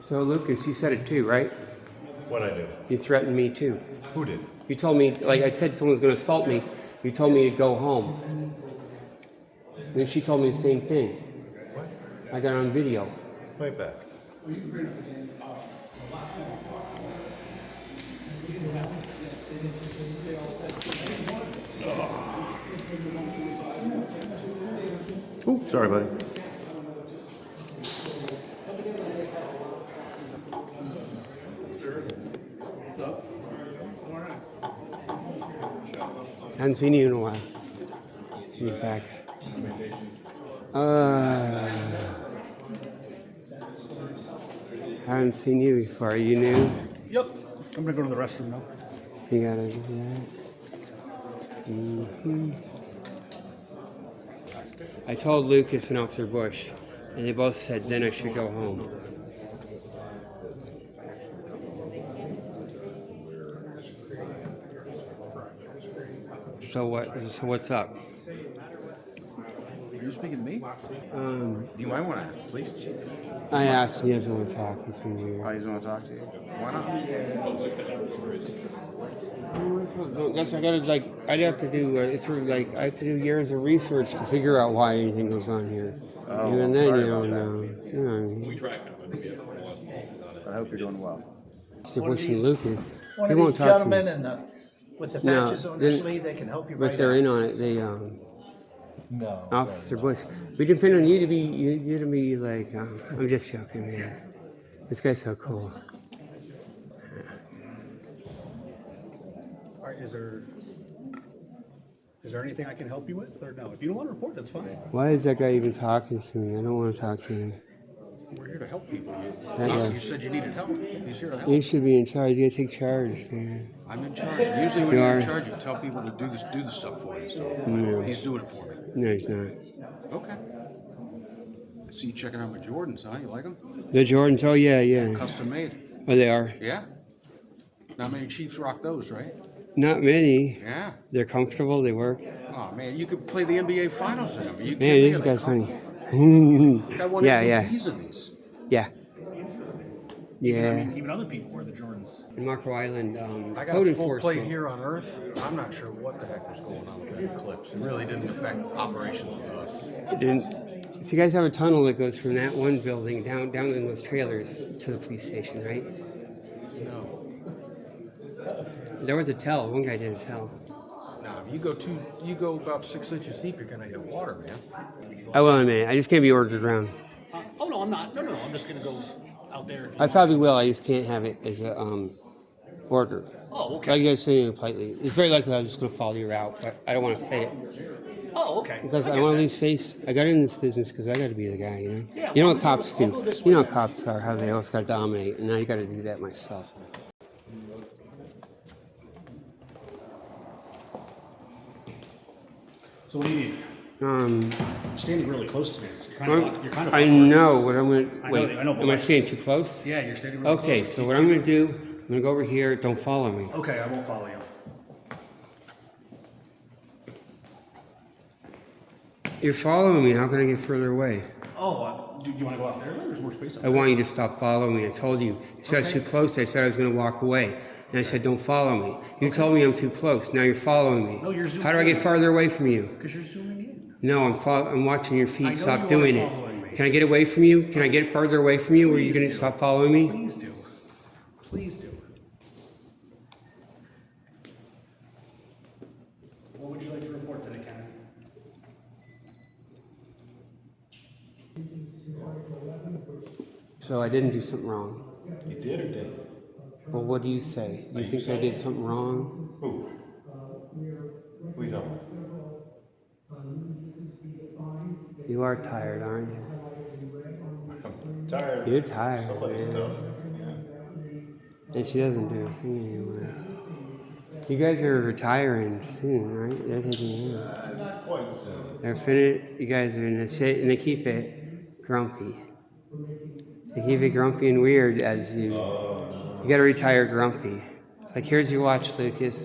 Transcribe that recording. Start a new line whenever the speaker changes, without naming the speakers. So Lucas, you said it too, right?
What I do?
You threatened me too.
Who did?
You told me, like I said, someone's going to assault me. You told me to go home. Then she told me the same thing. I got it on video.
Play it back. Ooh, sorry, buddy.
Haven't seen you in a while. You're back. Uh, haven't seen you before. You knew.
Yep. I'm gonna go to the restroom now.
You gotta do that. Mhm. I told Lucas and Officer Bush, and they both said then I should go home. So what? So what's up?
Are you speaking to me?
You might want to ask the police chief.
I asked. He doesn't want to talk. He's been weird.
Oh, he's want to talk to you. Why not?
That's I gotta like. I'd have to do. Uh, it's sort of like I have to do years of research to figure out why anything goes on here.
Oh,
Even then,
sorry
you don't
about that.
know. You know what I mean?
I hope you're doing well.
Mr.
One of
Bush and
these-
Lucas.
One
They
of
won't
these
talk to me.
gentlemen in the, with the
No,
patches on their
they-
sleeve, they can help you
But
right
they're
out.
in on it. They um,
No.
Officer Bush. We depend on you to be you, you to be like. Um, I'm just joking, man. This guy's so cool.
Are, is there is there anything I can help you with, or no? If you don't want to report, that's fine.
Why is that guy even talking to me? I don't want to talk to him.
We're here to help people.
That
You,
guy.
you said you needed help. He's here to
You
help.
should be in charge. You gotta take charge, man.
I'm in charge. Usually when
You
you are
are.
in charge, you tell people to do this, do the stuff for you. So he's doing it for me.
No, he's not.
Okay. I see you checking out my Jordans, huh? You like them?
The Jordans. Oh yeah, yeah.
Custom made.
Oh, they are.
Yeah. Not many Chiefs rock those, right?
Not many.
Yeah.
They're comfortable. They work.
Oh man, you could play the NBA Finals in them. You
Man,
kidding?
this
They
guy's
come-
funny.
Got one
yeah,
yeah,
yeah,
in these.
yeah,
I
yeah.
mean, even other people wear the Jordans.
In Marco Island, um,
I got
code
a full
enforcement.
plate here on Earth. I'm not sure what the heck was going on with that eclipse. It really didn't affect operations with us.
And so you guys have a tunnel that goes from that one building down down in those trailers to the police station, right?
No.
There was a tell. One guy did a tell.
Now, if you go two, you go about six inches deep, you're gonna hit water, man.
I will admit, I just can't be ordered around.
Uh, oh no, I'm not. No, no, I'm just gonna go out there. If you
I probably will. I just can't have it as a um, order.
Oh,
I
okay.
guess saying it politely. It's very likely I'm just going to follow you out, but I don't want to say it.
Oh, okay.
Because I,
get
want to
that.
lose face. I got in this business because I got to be the guy, you know.
Yeah,
you know
well,
what
I'll go-
cops
I'll
do.
go this
You know
way
what cops are. How they always got to dominate, and now you got to do that myself.
So what do you need?
Um,
You're standing really close to me. You're kind of, block, you're kind of
I
awkward.
know what I'm going to.
I know
Wait,
that- I know, but
am I
like-
staying too close?
Yeah, you're standing really
Okay,
close.
so what I'm going to do? I'm going to go over here. Don't follow me.
Okay, I won't follow you.
You're following me. How can I get further away?
Oh, uh, do you want to go out there? There's more space. Out
I
there.
want you to stop following me. I told you. You said I was too close. I said I was going to walk away. And I said, don't follow me. You told me I'm too close. Now you're following me.
No, you're zooming
How do I get
in.
farther away from you?
Because you're zooming in.
No, I'm fol- I'm watching your feet.
know
Stop
you are
doing
following me.
it. Can I get away from you? Can I get farther away from you? Or are you
Please
going to
do.
stop following me?
Please do. Please do. What would you like to report today, Kenneth?
So I didn't do something wrong.
You did or didn't?
Well, what do you say? Do you think I did something wrong?
Who? Who you talking about?
You are tired, aren't you?
I'm tired.
You're
of
tired.
Somebody's
man.
stuff.
And she doesn't do a thing anymore. You guys are retiring soon, right? They're taking you out.
Uh, not quite soon.
They're finna, you guys are in this shit, and they keep it grumpy. They keep it grumpy and weird as you. You gotta retire grumpy. It's like, here's your watch, Lucas.